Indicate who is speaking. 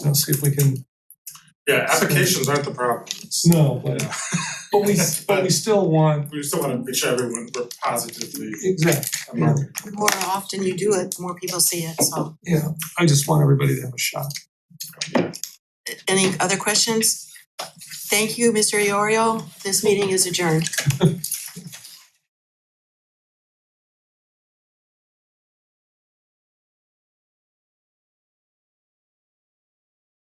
Speaker 1: Let's see if we can,
Speaker 2: Yeah, applications aren't the problem.
Speaker 1: no, but
Speaker 2: Yeah,
Speaker 1: but we but we still want,
Speaker 2: We still wanna make sure everyone, we're positively
Speaker 1: exactly,
Speaker 2: marketing.
Speaker 3: The more often you do it, the more people see it, so.
Speaker 1: yeah, I just want everybody to have a shot.
Speaker 3: Any other questions? Thank you, Mr. Iorio. This meeting is adjourned.